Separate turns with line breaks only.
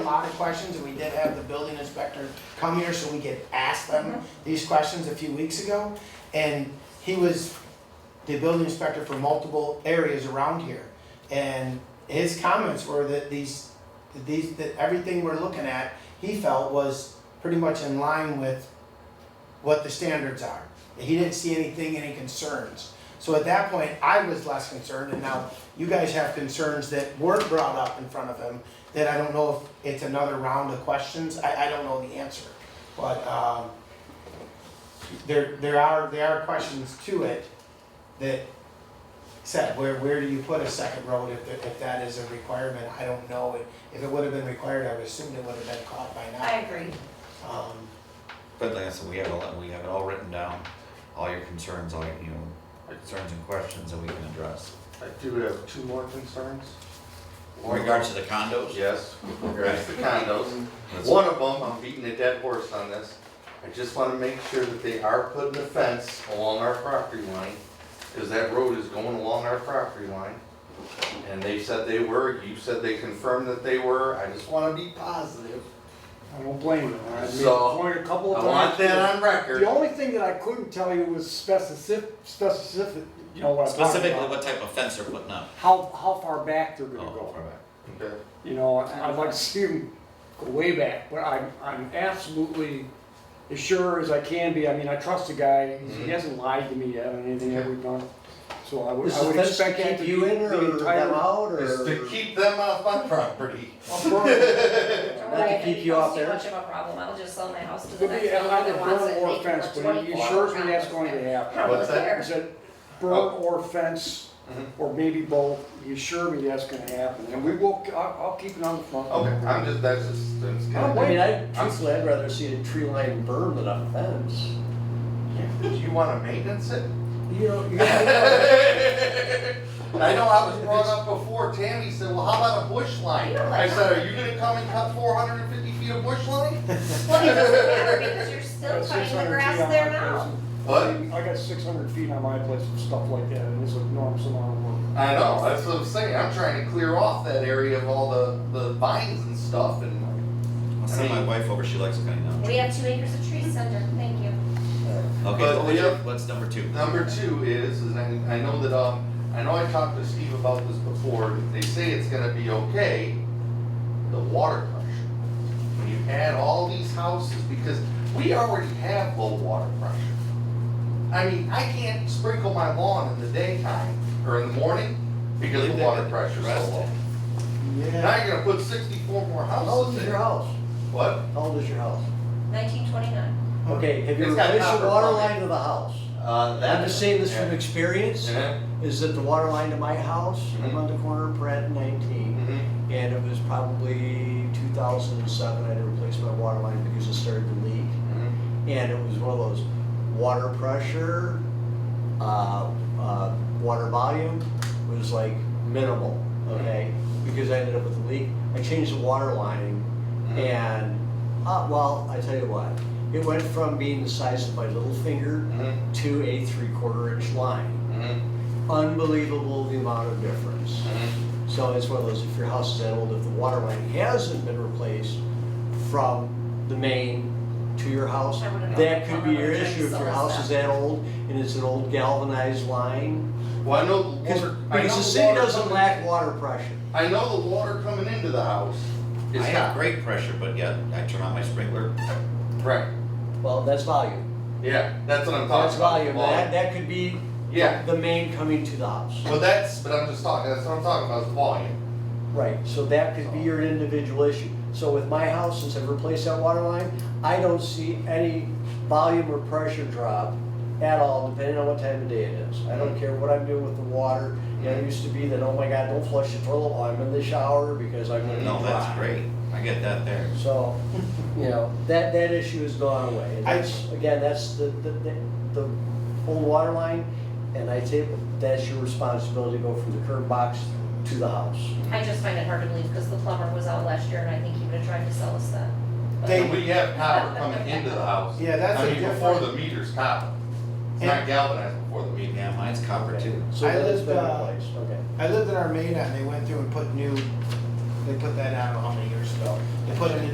a lot of questions, and we did have the building inspector come here, so we could ask them these questions a few weeks ago. And he was the building inspector for multiple areas around here. And his comments were that these, that these, that everything we're looking at, he felt was pretty much in line with what the standards are. He didn't see anything, any concerns. So at that point, I was less concerned, and now you guys have concerns that weren't brought up in front of him, that I don't know if it's another round of questions, I, I don't know the answer. But, um, there, there are, there are questions to it that said, where, where do you put a second road if, that- if that is a requirement? I don't know, if it would have been required, I would assume it would have been caught by now.
I agree.
Um,
But like I said, we have all, we have it all written down, all your concerns, all, your, you know, concerns and questions that we can address.
I do have two more concerns.
In regards to the condos?
Yes, in regards to condos.
Let's-
One of them, I'm beating a dead horse on this. I just want to make sure that they are putting a fence along our property line, because that road is going along our property line. And they said they were, you said they confirmed that they were, I just want to be positive.
I don't blame you. I made the
So,
point a couple
I
of
want
times.
that on
The
record.
only thing that I couldn't tell you was specific, specific, you know what I'm talking
Specifically,
about.
what type of fence they're putting up?
How, how far back they're gonna
Oh, far
go.
back.
Okay.
You know, I'd like to see them go way back, but I'm, I'm absolutely as sure as I can be. I mean, I trust the guy. He
Mhm.
hasn't lied to me yet on anything that we've done. So I would,
Is
I
the
would
fence to
expect that to
keep
be
you in
the
or them
entire.
out or?
Is to keep them off my property.
Of course.
Don't
Not to
worry, I
keep
think
you
it's
off
Too
there.
much of a problem, I'll just sell my house to the
Could be
next owner
either
that wants
burn
it.
or
They can
fence,
put
but he
24
assures me that's
condos
going to
there.
happen.
I don't
What's that?
care.
Is it
Oh.
burn or fence,
Mm-hmm.
or maybe both, you assure me that's gonna happen, and we will, I'll, I'll keep it on the front.
Okay, I'm just, that's just, that's kind
I'm
of.
I mean, I, truthfully, I'd rather see a tree line berm than a fence.
Do you wanna maintenance it?
You know, you
I know I was brought up before, Tammy said, well, how about a bush line? I said, are you gonna come and cut four hundred and fifty feet of bush line?
Well, it doesn't matter because you're still
Got
cutting the
600
grass
feet on
there
my
now.
What?
place. I got six hundred feet on my place and stuff like that, and it's an enormous amount of work.
I know, that's what I'm saying, I'm trying to clear off that area of all the, the vines and stuff and.
I'll send my wife over, she likes cutting down.
We have two acres of trees, Senator, thank you.
Okay, what
But the
was your-
oth-
what's number two?
Number two is, is I, I know that, um, I know I talked to Steve about this before, they say it's gonna be okay, the water pressure. When you add all these houses, because we already have low water pressure. I mean, I can't sprinkle my lawn in the daytime or in the morning because the water pressure's so low.
yeah.
Now you're gonna put sixty-four more
How old
houses
is
in.
your house?
What?
How old is your house?
Nineteen twenty-nine.
Okay, have you
It's got
replaced
copper
the water
plumbing.
line to the house?
Uh,
I'm just saying this from
Yeah.
experience,
Yeah.
is that the water line to my house, I'm
Mhm.
on the corner of Pratt and nineteen,
Mhm.
and it was probably two thousand and seven, I had to replace my water line because it started to leak.
Mhm.
And it was one of those water pressure, uh, uh, water volume was like minimal, okay? Because I ended up with a leak. I changed the water line and, uh, well, I tell you what, it went from being the size of my little finger
Mhm.
to a three quarter inch line.
Mhm.
Unbelievable the amount of difference.
Mhm.
So it's one of those, if your house is that old, if the water line hasn't been replaced from the main to your house,
I would've
that
thought
could be your
plumber would
issue if
check
your
some of
house is that old and it's an old galvanized line.
Well, I know the
Because,
water. I know
the city
water
doesn't
coming-
lack water pressure.
I know the water coming into the house
I
is
have
hot.
great pressure, but yeah, I turn on my sprinkler.
Right.
Well, that's volume.
Yeah, that's what I'm
That's
talking about.
volume.
Well,
That, that could be
Yeah,
the main coming to the house.
well, that's, but I'm just talking, that's what I'm talking about, is volume.
Right, so that could be your individual issue. So with my house, since I've replaced that water line, I don't see any volume or pressure drop at all, depending on what time of day it is. I don't care what I'm doing with the water. You know, it used to be that, oh my God, don't flush the toilet while I'm in the shower because I'm gonna be dry.
No, that's great, I get that there.
So, you know, that, that issue has gone away. And
I-
that's, again, that's the, the, the, the old water line, and I say, that's your responsibility to go from the curb box to the house.
I just find it hard to believe because the plumber was out last year and I think he would've tried to sell us that. But-
They-
And we have copper coming into the house.
Yeah, that's a
I mean, before
different-
the meter's copper. It's not galvanized before the meter.
Yeah, mine's copper too.
So
I
that has
lived,
been
uh,
replaced, okay.
I lived in Armada and they went through and put new, they put that, I don't know how many years ago, they put in a